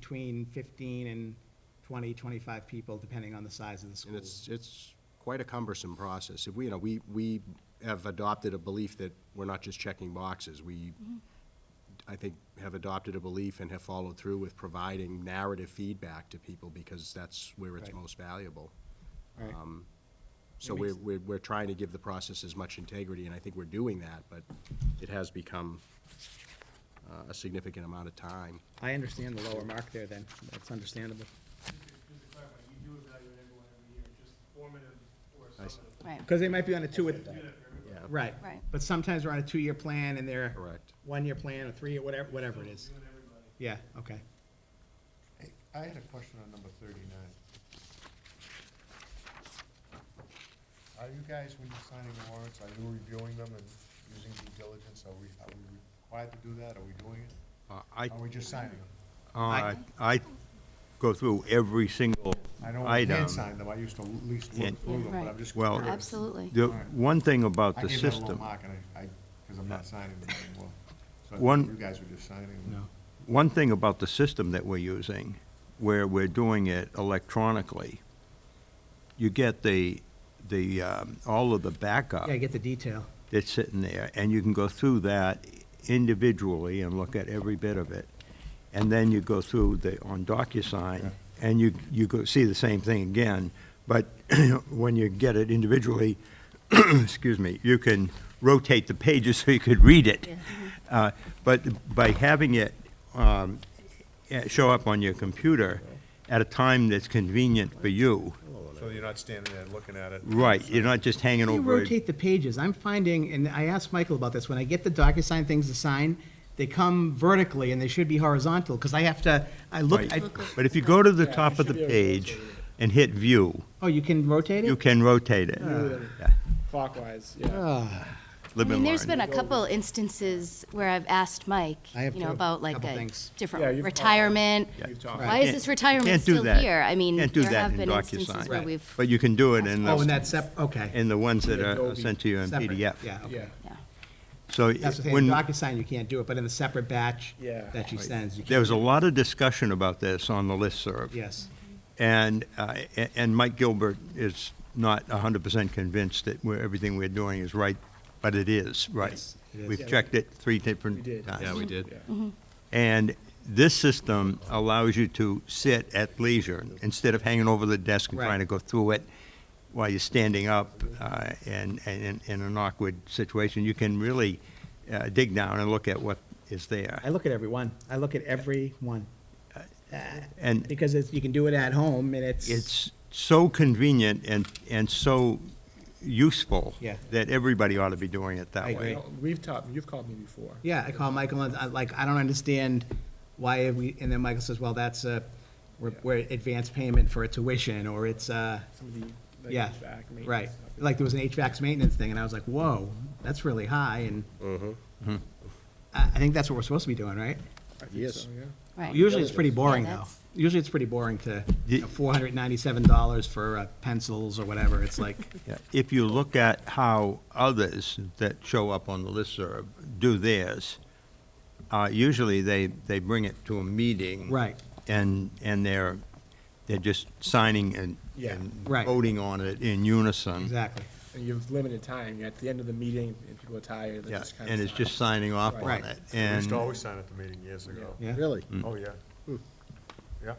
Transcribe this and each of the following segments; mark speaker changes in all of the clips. Speaker 1: between 15 and 20, 25 people, depending on the size of the
Speaker 2: And
Speaker 1: school.
Speaker 2: it's, it's quite a cumbersome process. If we, you know, we, we have adopted a belief that we're not just checking boxes. We,
Speaker 3: Mm-hmm.
Speaker 2: I think, have adopted a belief and have followed through with providing narrative feedback to people because that's where it's
Speaker 1: Right.
Speaker 2: most valuable.
Speaker 1: Right.
Speaker 2: Um, So
Speaker 1: That
Speaker 2: we're,
Speaker 1: makes-
Speaker 2: we're, we're trying to give the process as much integrity, and I think we're doing that, but it has become uh, a significant amount of time.
Speaker 1: I understand the lower mark there then, that's understandable.
Speaker 4: Just to clarify, you do evaluate everyone every year, just formative or
Speaker 2: I see.
Speaker 4: summative.
Speaker 5: Right,
Speaker 1: Because they might be on a two,
Speaker 4: You do that for everybody.
Speaker 2: Yeah,
Speaker 1: right.
Speaker 5: Right.
Speaker 1: But sometimes we're on a two-year plan and they're
Speaker 2: correct.
Speaker 1: one-year plan or three, or whatever, whatever it is.
Speaker 4: Doing everybody.
Speaker 1: Yeah, okay.
Speaker 3: Hey, I had a question on number thirty-nine. Are you guys, when you're signing warrants, are you reviewing them and using due diligence? Are we, are we required to do that? Are we doing it?
Speaker 6: Uh, I,
Speaker 3: Are we just signing them?
Speaker 6: uh, I go through every single
Speaker 3: I know we
Speaker 2: um,
Speaker 6: item.
Speaker 3: can sign them. I used to at least
Speaker 6: Yeah.
Speaker 3: look through them, but I'm just
Speaker 6: Well-
Speaker 3: curious.
Speaker 5: absolutely.
Speaker 6: The
Speaker 3: Alright.
Speaker 6: one thing about
Speaker 3: I
Speaker 6: the
Speaker 3: gave that a low
Speaker 6: system,
Speaker 3: mark and I, I, because I'm not signing them anymore. So I
Speaker 6: One-
Speaker 3: thought you guys were just signing them.
Speaker 6: one thing about the system that we're using, where we're doing it electronically, you get the, the, um, all of the backup
Speaker 1: Yeah, get the detail.
Speaker 6: that's sitting there, and you can go through that individually and look at every bit of it. And then you go through the, on DocuSign, and you, you go see the same thing again, but when you get it individually, excuse me, you can rotate the pages so you could read it. Uh, But by having it um, eh, show up on your computer at a time that's convenient for you,
Speaker 3: So you're not standing there looking at it?
Speaker 6: right, you're not just hanging
Speaker 1: How do you
Speaker 6: over it.
Speaker 1: rotate the pages? I'm finding, and I asked Michael about this, when I get the DocuSign things to sign, they come vertically and they should be horizontal, because I have to, I look, I,
Speaker 6: Right. But if you go to the top of the page and hit View,
Speaker 1: oh, you can rotate it?
Speaker 6: you can rotate it. Yeah.
Speaker 7: Clockwise, yeah.
Speaker 1: Ah.
Speaker 5: I
Speaker 6: Live
Speaker 5: mean,
Speaker 6: and
Speaker 5: there's been
Speaker 6: learn.
Speaker 5: a couple instances where I've asked Mike,
Speaker 1: I have
Speaker 5: you know,
Speaker 1: too.
Speaker 5: about like
Speaker 1: Couple
Speaker 5: a
Speaker 1: things.
Speaker 7: Yeah,
Speaker 5: different
Speaker 7: you've-
Speaker 5: retirement.
Speaker 7: You've talked.
Speaker 5: Why is
Speaker 6: Can't-
Speaker 5: this retirement
Speaker 6: can't do
Speaker 5: still
Speaker 6: that.
Speaker 5: here? I mean,
Speaker 6: Can't do
Speaker 5: there
Speaker 6: that
Speaker 5: have
Speaker 6: in
Speaker 5: been instances
Speaker 6: DocuSign.
Speaker 5: where
Speaker 1: Right.
Speaker 5: we've.
Speaker 6: But you can do it in
Speaker 1: Oh, and
Speaker 6: the,
Speaker 1: that's sep, okay.
Speaker 6: in the ones that are
Speaker 7: Adobe.
Speaker 6: sent to you in
Speaker 1: Separate,
Speaker 6: PDF.
Speaker 1: Yeah, okay.
Speaker 7: Yeah.
Speaker 5: yeah.
Speaker 6: So
Speaker 1: That's the thing, in
Speaker 6: when,
Speaker 1: DocuSign, you can't do it, but in the separate batch
Speaker 7: Yeah.
Speaker 1: that she sends, you can.
Speaker 6: there was a lot of discussion about this on the listserv.
Speaker 1: Yes,
Speaker 6: And, uh, a- and Mike Gilbert is not 100% convinced that we're, everything we're doing is right, but it is right.
Speaker 1: Yes, it is.
Speaker 6: We've checked it three different
Speaker 7: We did.
Speaker 6: times.
Speaker 2: Yeah, we did.
Speaker 6: And this system allows you to sit at leisure instead of hanging over the desk and
Speaker 1: Right.
Speaker 6: trying to go through it while you're standing up uh, and, and in- in an awkward situation. You can really uh, dig down and look at what is there.
Speaker 1: I look at every one, I look at every one,
Speaker 6: And
Speaker 1: because it's, you can do it at home, and it's.
Speaker 6: it's so convenient and, and so useful
Speaker 1: Yeah.
Speaker 6: that everybody ought to be doing it
Speaker 1: I
Speaker 6: that
Speaker 1: agree.
Speaker 6: way.
Speaker 7: You know, We've talked, you've called me before.
Speaker 1: Yeah, I call Michael and I, like, I don't understand why have we, and then Michael says, well, that's a, we're,
Speaker 7: Yeah.
Speaker 1: we're advanced payment for a tuition, or it's a,
Speaker 7: Some of the, like,
Speaker 1: yeah,
Speaker 7: HVAC maintenance
Speaker 1: right.
Speaker 7: stuff.
Speaker 1: Like, there was an HVAC's maintenance thing, and I was like, whoa, that's really high, and
Speaker 7: Mm-hmm.
Speaker 6: Mm-hmm.
Speaker 1: I, I think that's what we're supposed to be doing, right?
Speaker 7: I think
Speaker 2: Yes.
Speaker 7: so, yeah.
Speaker 5: Right.
Speaker 1: Usually, it's pretty boring,
Speaker 5: Yeah,
Speaker 1: though.
Speaker 5: that's-
Speaker 1: Usually, it's pretty boring to,
Speaker 6: Ye-
Speaker 1: four hundred ninety-seven dollars for uh, pencils or whatever, it's like,
Speaker 6: Yeah. If you look at how others that show up on the listserv do theirs, uh, usually they, they bring it to a meeting.
Speaker 1: right,
Speaker 6: And, and they're, they're just signing and,
Speaker 7: Yeah.
Speaker 6: and
Speaker 1: Right.
Speaker 6: voting on it in unison.
Speaker 1: exactly.
Speaker 7: And you have limited time. You're at the end of the meeting and people are tired. they
Speaker 6: Yeah,
Speaker 7: just kinda
Speaker 6: and it's
Speaker 7: sigh.
Speaker 6: just signing off on
Speaker 1: Right.
Speaker 6: it.
Speaker 3: We used
Speaker 6: And,
Speaker 3: to always sign at the meeting years ago.
Speaker 1: Yeah.
Speaker 2: Really?
Speaker 3: Oh, yeah. Yeah,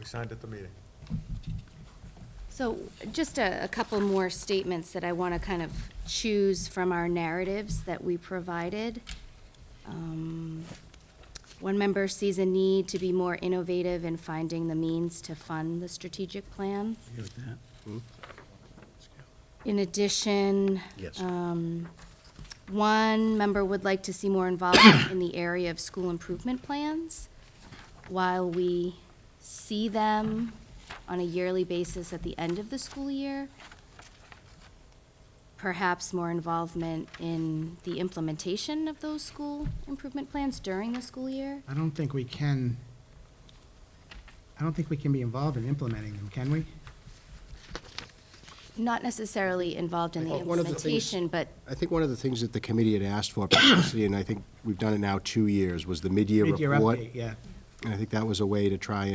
Speaker 3: we signed at the meeting.
Speaker 5: So just a, a couple more statements that I want to kind of choose from our narratives that we provided. Um, One member sees a need to be more innovative in finding the means to fund the strategic plan. In addition, um,
Speaker 2: Yes.
Speaker 5: one member would like to see more involvement in the area of school improvement plans. While we see them on a yearly basis at the end of the school year, perhaps more involvement in the implementation of those school improvement plans during the school year.
Speaker 1: I don't think we can, I don't think we can be involved in implementing them, can we?
Speaker 5: Not necessarily involved in the
Speaker 2: Well, one of the things-
Speaker 5: implementation, but
Speaker 2: I think one of the things that the committee had asked for, particularly, and I think we've done it now two years, was the mid-year
Speaker 1: Mid-year
Speaker 2: report.
Speaker 1: update, yeah.
Speaker 2: And I think that was a way to try